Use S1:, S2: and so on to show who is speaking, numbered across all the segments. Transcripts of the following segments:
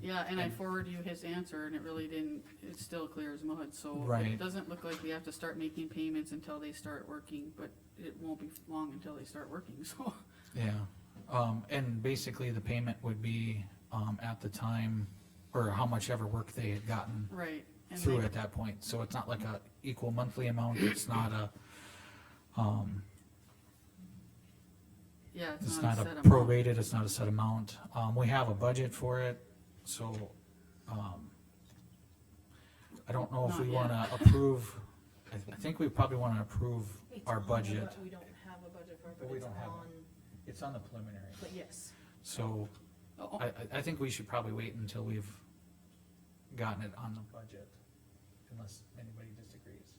S1: Yeah, and I forwarded you his answer and it really didn't, it's still clear as mud, so
S2: Right.
S1: it doesn't look like we have to start making payments until they start working, but it won't be long until they start working, so.
S2: Yeah, um, and basically the payment would be, um, at the time, or how much ever work they had gotten
S1: Right. and
S2: through
S1: they-
S2: at that point, so it's not like a equal monthly amount, it's not a, um,
S1: Yeah, it's
S2: it's
S1: not a set amount.
S2: prorated, it's not a set amount, um, we have a budget for it, so, um, I don't know if
S1: Not
S2: we
S1: yet.
S2: wanna approve, I, I think we probably wanna approve
S3: It's
S2: our
S3: on the
S2: budget,
S3: bu- We don't have a budget for it,
S2: But
S3: but
S2: we
S3: it's
S2: don't have
S3: on,
S2: it's on the preliminary,
S3: but yes,
S2: so.
S1: Oh,
S2: I, I, I think we should probably wait until we've gotten it on the budget, unless anybody disagrees.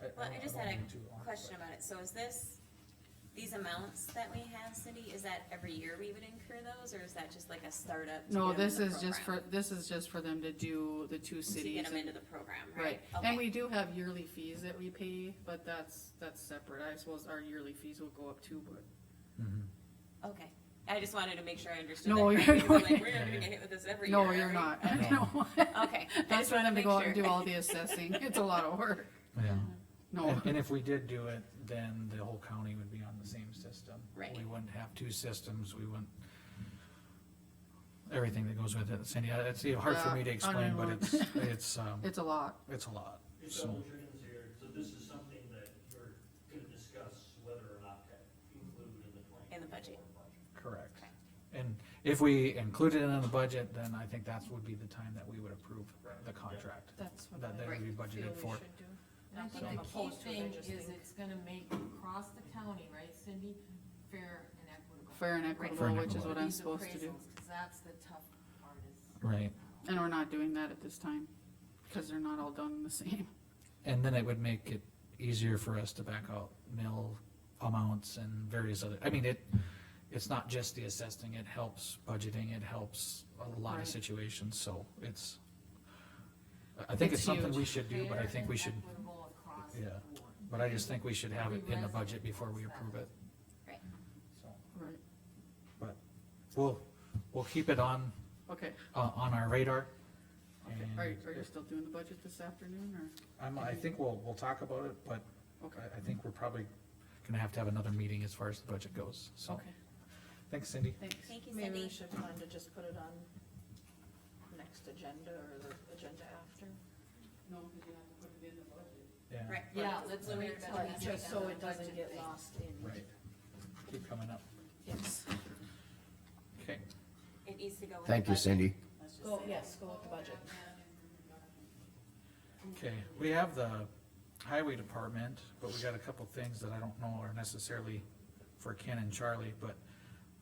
S4: Well, I just
S2: don't
S4: had
S2: wanna
S4: a
S2: be too long,
S4: question
S2: but-
S4: about it, so is this, these amounts that we have, Cindy, is that every year we would incur those, or is that just like a startup? to
S1: No,
S4: get 'em in
S1: this
S4: the
S1: is just for,
S4: program?
S1: this is just for them to do the two
S4: To
S1: cities.
S4: get them
S1: and-
S4: into the program,
S1: Right,
S4: right?
S1: and
S4: Okay.
S1: we do have yearly fees that we pay, but that's, that's separate, I suppose our yearly fees will go up too, but.
S2: Mhm.
S4: Okay, I just wanted to make sure I understood
S1: No,
S4: that
S1: you're
S4: correctly, 'cause I'm
S1: not.
S4: like, we're not gonna get hit with this every year.
S1: No, you're
S4: right?"
S1: not,
S4: Okay.
S1: no.
S4: Okay. I
S1: That's
S4: just
S1: for them
S4: wanted
S1: to
S4: make
S1: go out and
S4: sure.
S1: do all the assessing, it's a lot of work,
S2: Yeah,
S4: Mhm.
S1: no,
S2: Oh, and, and if we did do it, then the whole county would be on the same system.
S4: Right.
S2: We wouldn't have two systems, we wouldn't. Everything that goes with it, Cindy, I- it's hard for
S1: Yeah,
S2: me to
S1: I
S2: explain, but
S1: know.
S2: it's, it's, um,
S1: it's a lot.
S2: it's a lot,
S5: You've
S2: so.
S5: got Richard's here, so this is something that you're gonna discuss whether or not to include in the twenty.
S4: In the budget.
S2: Correct.
S4: Okay.
S2: And if we include it in the budget, then I think that's would be the time that we would approve the contract.
S1: That's what
S2: That, that
S1: I,
S2: would be budgeted for.
S6: I
S3: Not
S6: think
S3: that I'm
S6: the key
S3: opposed to it, I
S6: thing
S3: just
S6: is
S3: think-
S6: it's gonna make across the county, right Cindy, fair and equitable.
S1: fair and
S2: Fair
S1: equitable,
S2: and
S1: which is what I'm
S6: These
S1: supposed to do,
S6: appraisals, 'cause that's the tough part is.
S2: Right.
S1: and we're not doing that at this time, cause they're not all done the same.
S2: And then it would make it easier for us to back out mill amounts and various other, I mean, it, it's not just the assessing, it helps budgeting, it helps a lot
S1: Right.
S2: of situations, so it's. I- I think
S1: It's
S2: it's something
S1: huge.
S2: we should do, but I
S6: Fair
S2: think we
S6: and
S2: should,
S6: Equitable across the
S2: Yeah.
S6: board.
S2: but I just think we should have it in the
S6: Every
S2: budget before we
S6: resident
S2: approve it.
S4: Right.
S2: So,
S1: Right,
S2: But we'll, we'll keep it on,
S1: okay,
S2: uh, on our radar.
S1: okay,
S2: and
S1: are, you- are you still doing the budget this afternoon, or,
S2: I'm, I think we'll, we'll talk about it, but
S1: okay,
S2: I, I think we're probably gonna have to have another meeting as far as the budget goes, so.
S1: okay,
S2: Thanks, Cindy.
S1: thanks.
S4: Thank you,
S3: Maybe we
S4: Cindy.
S3: should plan to just put it on next agenda or the agenda after.
S1: No, cause you have to put it in the budget.
S2: Yeah.
S4: Right.
S6: Yeah, let's wait till
S3: But
S6: we
S3: Just
S6: get
S3: so
S6: the
S3: it doesn't
S6: budget
S3: get
S6: thing.
S3: lost in.
S2: Right. Keep coming up.
S3: Yes,
S2: Okay.
S4: It needs to go with the
S7: Thank you,
S4: budget.
S7: Cindy.
S3: go, yes, go with the budget.
S2: Okay, we have the highway department, but we got a couple things that I don't know are necessarily for Ken and Charlie, but,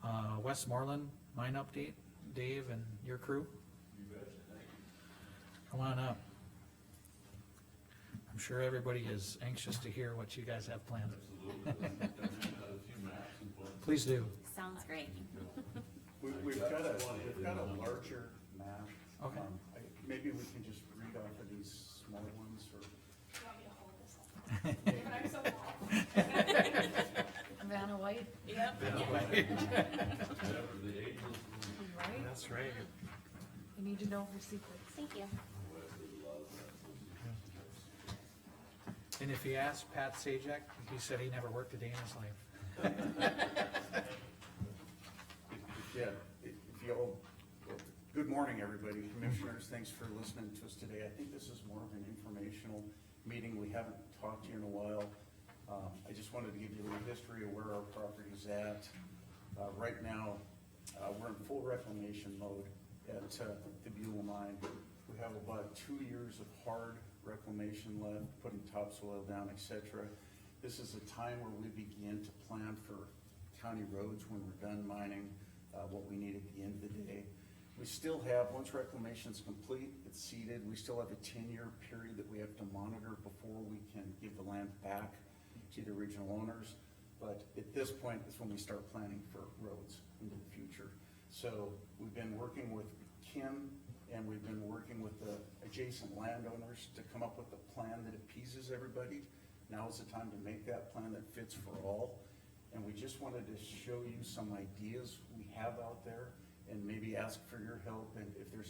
S2: uh, Westmoreland mine update, Dave and your crew? Come on up. I'm sure everybody is anxious to hear what you guys have planned. Please do.
S4: Sounds great.
S8: We, we've got a, we've got a larger map.
S2: Okay.
S8: Um, I- Maybe we can just read off of these small ones or.
S6: Vanna White, right?
S8: That's right.
S6: You need to know her secrets.
S4: Thank you.
S2: And if you ask Pat Sajak, he said he never worked a day in his life.
S8: Yeah, if if you all, well, good morning, everybody, commissioners, thanks for listening to us today. I think this is more of an informational meeting, we haven't talked to you in a while. Um, I just wanted to give you a little history of where our property's at. Uh, right now, uh, we're in full reclamation mode at, uh, the Buell Mine. We have about two years of hard reclamation left, putting topsoil down, et cetera. This is a time where we begin to plan for county roads when we're done mining, uh, what we need at the end of the day. We still have, once reclamation's complete, it's seeded, we still have a ten-year period that we have to monitor before we can give the land back to the original owners. But at this point is when we start planning for roads into the future. So we've been working with Kim and we've been working with the adjacent landowners to come up with a plan that appeases everybody. Now is the time to make that plan that fits for all. And we just wanted to show you some ideas we have out there and maybe ask for your help and if there's